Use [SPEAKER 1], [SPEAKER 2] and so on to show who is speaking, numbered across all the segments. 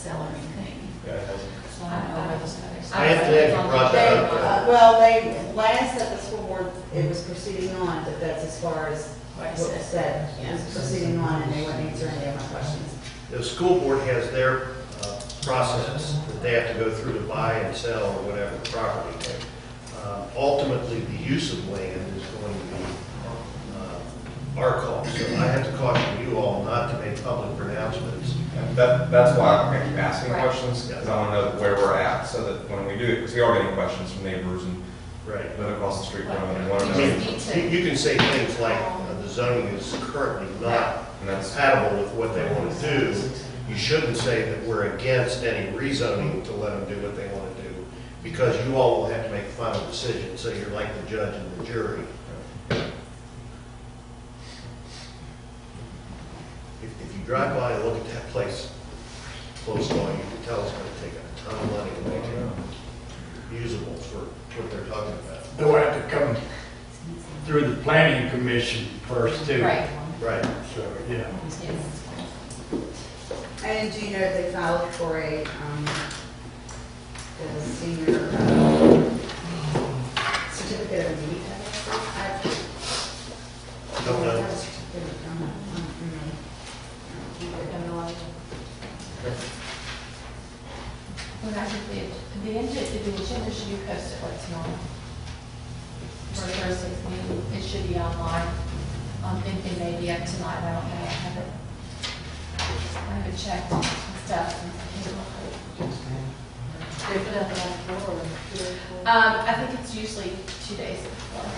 [SPEAKER 1] celery thing. So I don't know where those others.
[SPEAKER 2] I have to have you brought that up.
[SPEAKER 3] uh, well, they, last at the school board, it was proceeding on, but that's as far as
[SPEAKER 1] Where
[SPEAKER 3] what
[SPEAKER 1] it
[SPEAKER 3] was
[SPEAKER 1] says that.
[SPEAKER 3] said. It was proceeding on, and they wouldn't answer any of my questions.
[SPEAKER 2] The school board has their uh, process that they have to go through to buy and sell or whatever property. Uh, Ultimately, the use of land is going to be uh, our call. So I have to caution you all not to make public pronouncements.
[SPEAKER 4] And That, that's why I'm gonna keep asking
[SPEAKER 1] Right.
[SPEAKER 4] questions, because I want to know where we're at, so that when we do it, because we are getting questions from neighbors and
[SPEAKER 2] Right.
[SPEAKER 4] then across the street from them, and want to
[SPEAKER 2] I
[SPEAKER 4] know.
[SPEAKER 2] mean,
[SPEAKER 4] And
[SPEAKER 1] Right.
[SPEAKER 2] You you can say things like, uh, the zoning is currently not
[SPEAKER 4] that's,
[SPEAKER 2] compatible with what they want to do. You shouldn't say that we're against any rezoning to let them do what they want to do, because you all will have to make a final decision, so you're like the judge and the jury. If, if you drive by and look at that place close by, you can tell it's gonna take a ton of money to make it usable for what they're talking about.
[SPEAKER 5] They'll have to come through the planning commission first too.
[SPEAKER 1] Right,
[SPEAKER 2] Right.
[SPEAKER 5] So, yeah.
[SPEAKER 1] yes.
[SPEAKER 3] And do you know if they filed for a, um, the senior, uh, certificate of need? I
[SPEAKER 2] Don't know.
[SPEAKER 1] I don't know. Well, I think the, the agenda, the agenda should be posted what's normal. For the Thursday's meeting, it should be online. I'm thinking maybe up tonight, I don't know, I haven't, I haven't checked and stuff. They put up on floor. Um, I think it's usually two days before.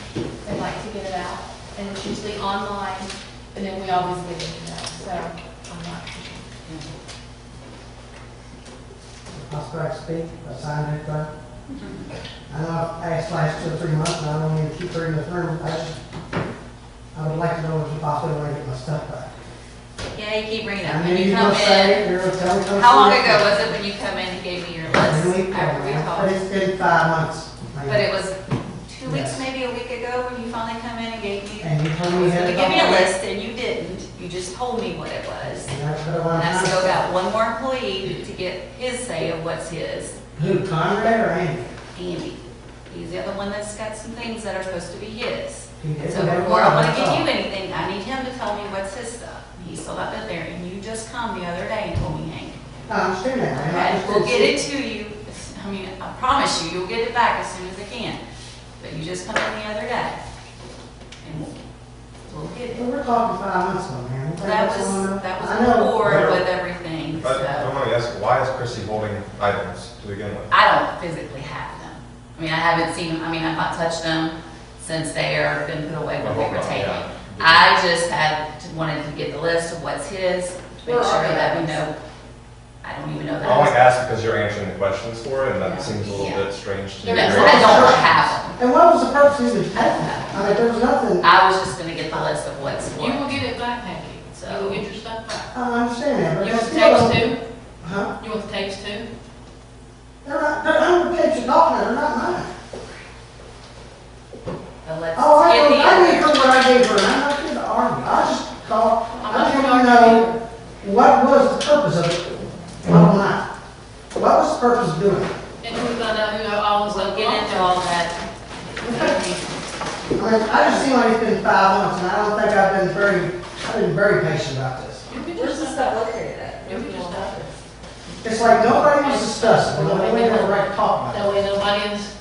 [SPEAKER 1] They like to get it out, and it's usually online, and then we always get it, you so I'm not.
[SPEAKER 6] I'll start to speak, I signed anything. I know I've asked last two or three months, and I don't need to keep her in the room, I just, I would like to know if you possibly want to get my stuff back.
[SPEAKER 7] Yeah, you keep bringing it
[SPEAKER 6] I
[SPEAKER 7] up.
[SPEAKER 6] knew
[SPEAKER 7] When you
[SPEAKER 6] you
[SPEAKER 7] come
[SPEAKER 6] were
[SPEAKER 7] in,
[SPEAKER 6] saying, you were telling me.
[SPEAKER 7] how long ago was it when you come in and gave me your list? I
[SPEAKER 6] But
[SPEAKER 7] recall.
[SPEAKER 6] it's been five months.
[SPEAKER 7] But it was two weeks,
[SPEAKER 6] Yes.
[SPEAKER 7] maybe a week ago, when you finally come in and gave me.
[SPEAKER 6] And you told me you
[SPEAKER 7] So
[SPEAKER 6] had
[SPEAKER 7] you
[SPEAKER 6] it
[SPEAKER 7] gave me a
[SPEAKER 6] all.
[SPEAKER 7] list and you didn't. You just told me what it was.
[SPEAKER 6] And that's what I
[SPEAKER 7] And
[SPEAKER 6] want
[SPEAKER 7] I
[SPEAKER 6] to
[SPEAKER 7] still
[SPEAKER 6] know.
[SPEAKER 7] got one more employee to get his say of what's his.
[SPEAKER 6] Who, Conrad or Andy?
[SPEAKER 7] Andy. He's the other one that's got some things that are supposed to be his.
[SPEAKER 6] He didn't
[SPEAKER 7] So
[SPEAKER 6] know
[SPEAKER 7] before I
[SPEAKER 6] what
[SPEAKER 7] want to give
[SPEAKER 6] thought.
[SPEAKER 7] you anything, I need him to tell me what's his stuff. He's still not been there. And you just come the other day and told me, Hank,
[SPEAKER 6] No, I understand that, man. I
[SPEAKER 7] Okay,
[SPEAKER 6] just
[SPEAKER 7] we'll
[SPEAKER 6] didn't
[SPEAKER 7] get it to you, I mean, I promise you, you'll get it back as soon as I can, but you just come in the other day, and we'll, we'll get
[SPEAKER 6] see- Well,
[SPEAKER 7] it.
[SPEAKER 6] We're talking five months ago, man.
[SPEAKER 7] Well, That was, that was board with everything,
[SPEAKER 4] but I
[SPEAKER 7] so,
[SPEAKER 4] want to ask, why is Chrissy holding items to begin with?
[SPEAKER 7] I don't physically have them. I mean, I haven't seen, them. I mean, I've not touched them since they are been put away when they were taken. I just had, wanted to get the list of what's his, to make sure that we know, I don't even know
[SPEAKER 4] Oh, I
[SPEAKER 7] that.
[SPEAKER 4] only ask because you're answering the questions for it, and
[SPEAKER 7] Yeah.
[SPEAKER 4] that seems a little
[SPEAKER 7] Yeah.
[SPEAKER 4] bit strange to me.
[SPEAKER 7] Because I don't have them.
[SPEAKER 6] And what was the purpose of even having that? I mean, there was nothing, I
[SPEAKER 7] I was just gonna get the list of what's
[SPEAKER 8] You will
[SPEAKER 7] what.
[SPEAKER 8] get it back, Peggy. You will get your stuff back.
[SPEAKER 6] don't understand that, but
[SPEAKER 8] You
[SPEAKER 6] I
[SPEAKER 8] want the
[SPEAKER 6] still
[SPEAKER 8] tapes
[SPEAKER 6] don't.
[SPEAKER 8] too?
[SPEAKER 6] Huh?
[SPEAKER 8] You want the tapes too?
[SPEAKER 6] They're not, they're under page of document, they're not mine.
[SPEAKER 7] But let's
[SPEAKER 6] Oh, I,
[SPEAKER 7] get
[SPEAKER 6] don't-
[SPEAKER 7] the
[SPEAKER 6] I didn't
[SPEAKER 7] other.
[SPEAKER 6] know what I gave her, and I'm not here to argue, I just called, I
[SPEAKER 8] not
[SPEAKER 6] just
[SPEAKER 8] gonna
[SPEAKER 6] want to know, what was the purpose of it? Bottom line, what was the purpose of doing it?
[SPEAKER 8] And we find out who all was
[SPEAKER 7] We'll
[SPEAKER 8] up
[SPEAKER 7] get into all that.
[SPEAKER 6] I mean, I just seem like it's been five months, and I don't think I've been very, I've been very patient about this.
[SPEAKER 8] You'll get your
[SPEAKER 3] Where's the
[SPEAKER 8] stuff.
[SPEAKER 3] stuff located at?
[SPEAKER 8] You'll get your stuff.
[SPEAKER 6] It's like nobody was discussing, nobody ever right talk about
[SPEAKER 8] That way nobody is.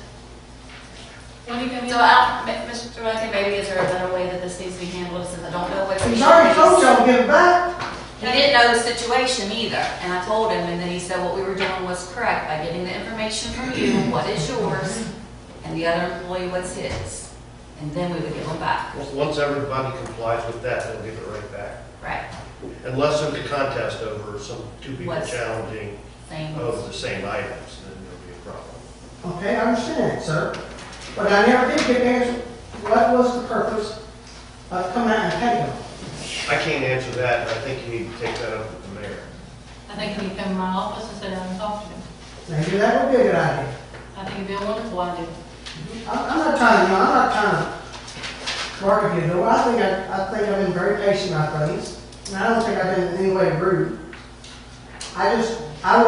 [SPEAKER 8] When you come in.
[SPEAKER 7] So I, Ma- Mr. Duncan, maybe is there a better way that this needs to be handled since I don't know what.
[SPEAKER 6] it. He's already told y'all to give it back,
[SPEAKER 7] He didn't know the situation either, and I told him, and then he said what we were doing was correct by getting the information from you, what is yours, and the other employee, what's his. And then we would give them back,
[SPEAKER 2] Once everybody complies with that, they'll give it right back.
[SPEAKER 7] right?
[SPEAKER 2] Unless there's a contest over some two people
[SPEAKER 7] What's-
[SPEAKER 2] challenging
[SPEAKER 7] Same.
[SPEAKER 2] of the same items, then there'll be a problem.
[SPEAKER 6] okay, I understand that, sir, but I never did get an answer, what was the purpose of coming out and taking them?
[SPEAKER 2] I can't answer that, and I think you need to take that up with the mayor.
[SPEAKER 8] I think when you come in my office and sit down and talk to him.
[SPEAKER 6] Maybe that would be a good idea.
[SPEAKER 8] I think it'd be a wonderful idea.
[SPEAKER 6] I'm, I'm not trying to, you know, I'm not trying to market you, but I think I, I think I've been very patient about things, and I don't think I've been in any way rude. I just, I don't